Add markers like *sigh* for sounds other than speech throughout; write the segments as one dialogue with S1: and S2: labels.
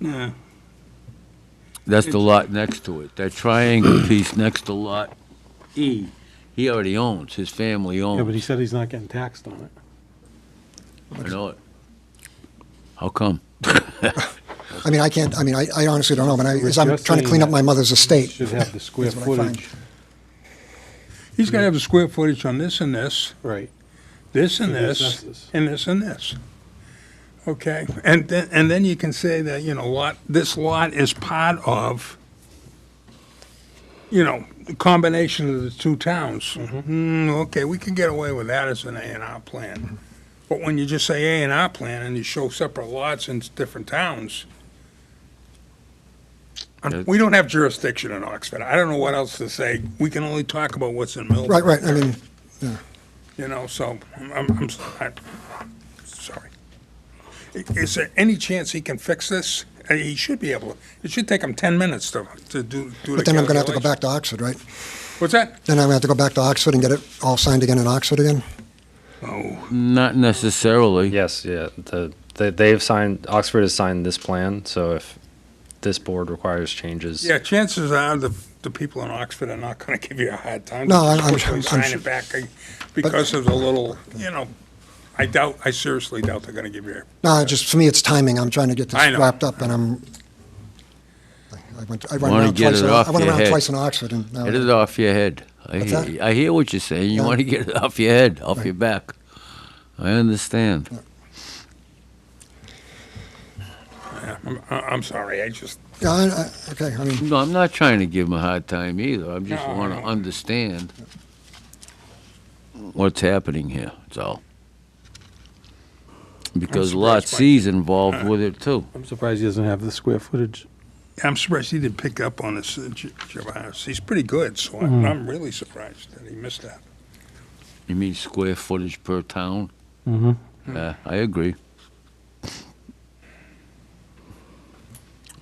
S1: No,
S2: That's the lot next to it. That triangle piece next to lot E, he already owns, his family
S3: Yeah, but he
S2: owns.
S3: said he's not getting taxed on it.
S2: I know it. How come?
S4: I mean, I can't, I mean, I I honestly don't know, but I, as I'm
S3: You're
S4: trying to clean up
S3: saying
S4: my mother's
S3: He
S4: estate.
S3: Should have the square
S4: That's what I find.
S3: footage,
S1: he's gotta have the square footage on this and this,
S3: right.
S1: this and
S3: The
S1: this,
S3: recesses.
S1: and this and this. Okay, and then, and then you can say that, you know, lot, this lot is part of, you know, the combination of the two towns. Mm, okay, we can get away with that as an A and R plan. But when you just say A and R plan and you show separate lots in different towns, and we don't have jurisdiction in Oxford. I don't know what else to say. We can only talk about what's in Milford.
S4: Right, right, I mean,
S1: You know, so I'm, I'm, I'm s- I'm sorry. I- Is there any chance he can fix this? Uh, He should be able, to. it should take him 10 minutes to, to do, do the
S4: but then I'm gonna have to go
S1: calculation.
S4: back to Oxford, right?
S1: What's that?
S4: Then I'm gonna have to go back to Oxford and get it all signed again in Oxford again?
S1: Oh,
S2: Not necessarily.
S5: Yes, yeah. The, they, they've signed, Oxford has signed this plan, so if this board requires changes.
S1: yeah, chances are the, the people in Oxford are not gonna *laughs* give you a hard time.
S4: No,
S1: They'll
S4: I'm- I'm
S1: quickly
S4: sure- I'm
S1: Sign
S4: sure.
S1: it back uh, because of the little, you know, I doubt, I seriously doubt they're gonna give you, a-
S4: No, just, for me, it's timing, I'm trying to get
S1: I
S4: this
S1: know.
S4: wrapped up, and I'm, I went, I went
S2: Wanna
S4: around
S2: get
S4: twice,
S2: it
S4: in-
S2: off
S4: I went
S2: your
S4: around
S2: head.
S4: twice in Oxford, and now,
S2: Get it off your head. I
S4: What's
S2: hear,
S4: that?
S2: I hear what you're saying. You
S4: Yeah.
S2: want to get it off your head, off your back. I understand.
S1: I'm, I- I'm sorry, I just,
S4: yeah, I, I, okay, I mean,
S2: No, I'm not trying to give him a hard time either. I just
S1: No,
S2: want to
S1: no.
S2: understand what's happening here, that's all. Because Lot
S1: surprised by-
S2: C's involved with it too.
S3: I'm surprised he doesn't have the square footage.
S1: I'm surprised he didn't pick up on this, uh, J- Gervais. He's pretty good, so I'm, I'm really surprised that he missed that.
S2: You mean square footage per town?
S3: Mm-hmm.
S2: Yeah, I agree.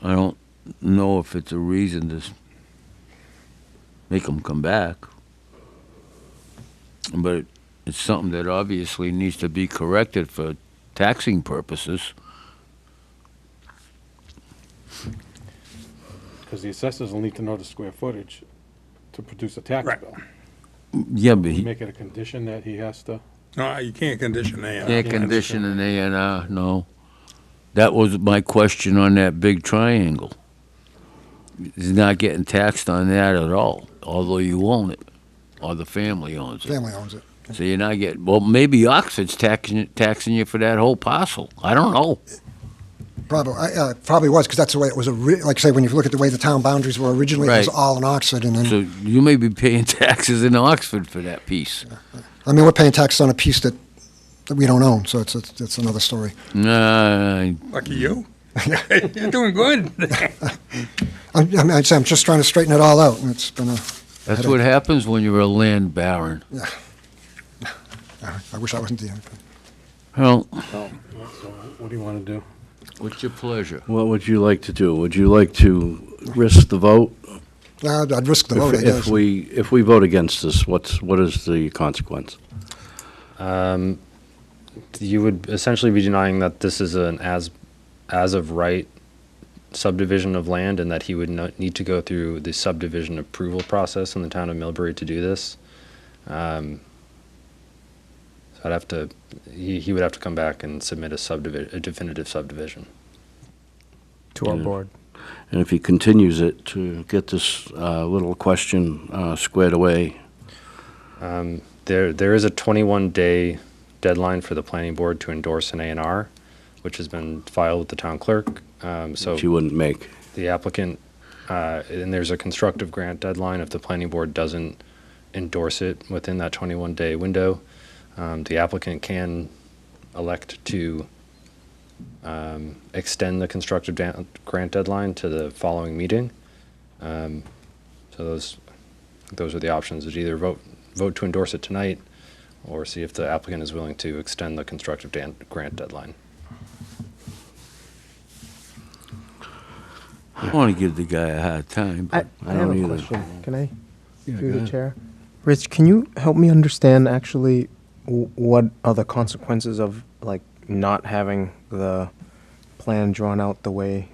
S2: I don't know if it's a reason to s- make them come back, but it's something that obviously needs to be corrected for taxing purposes.
S3: Because the assessors will need to know the square footage to produce a tax
S1: Right.
S3: bill.
S2: Yeah, but
S3: We
S2: he
S3: Make it a condition that he has to,
S1: No, you can't condition A.
S2: can't condition an A and R, no. That was my question on that big triangle. He's not getting taxed on that at all, although you own it, or the family owns it.
S4: family owns it.
S2: So you're not getting, well, maybe Oxford's taxing, taxing you for that whole parcel. I don't know.
S4: Probably, I- uh, probably was, because that's the way it was, ori- like I say, when you look at the way the town boundaries were originally, it was
S2: Right.
S4: all in Oxford, and
S2: So
S4: then,
S2: you may be paying *laughs* taxes in Oxford for that piece.
S4: I mean, we're paying taxes on a piece that, that we don't own, so it's, it's it's another story.
S2: Nah, *laughs*
S1: Lucky you. You're doing good.
S4: I'm, I'm, I'd say I'm just trying to straighten it all out, and it's been a,
S2: that's what happens when you're a land baron.
S4: I wish I wasn't the,
S2: Well,
S3: so what do you want to do?
S2: what's your pleasure?
S6: What would you like to do? Would you like to risk the vote?
S4: Nah, uh, I'd I'd risk the
S6: If-
S4: vote, I
S6: If
S4: guess.
S6: we, if we vote against this, what's, what is the consequence?
S5: Um, you would essentially be denying that this is an as, as of right subdivision of land and that he would not need to go through the subdivision approval process in the town of Millbury to do this. Um, so I'd have to, he, he would have to come back and submit a subdivision, a definitive subdivision.
S7: to our
S6: Yeah.
S7: board.
S6: And if he continues it to get this uh, little question uh, squared away,
S5: Um, there, there is a 21-day deadline for the planning board to endorse an A and R, which has been filed with the town clerk. Um, so
S6: she wouldn't make.
S5: the applicant, uh, and there's a constructive grant deadline if the planning board doesn't endorse it within that 21-day window. Um, the applicant can elect to um, extend the constructive da- grant deadline to the following meeting. Um, so those those are the options: is either vote vote to endorse it tonight, or see if the applicant is willing to extend the constructive dan- grant deadline.
S2: I don't want to give the guy a hard time,
S7: I,
S2: but
S6: I
S7: I have
S6: don't
S7: a
S6: either.
S7: question. Can I, through
S6: go
S7: the
S6: ahead.
S7: chair? Rich, can you help me understand actually w- what are the consequences of like not having the plan drawn out the way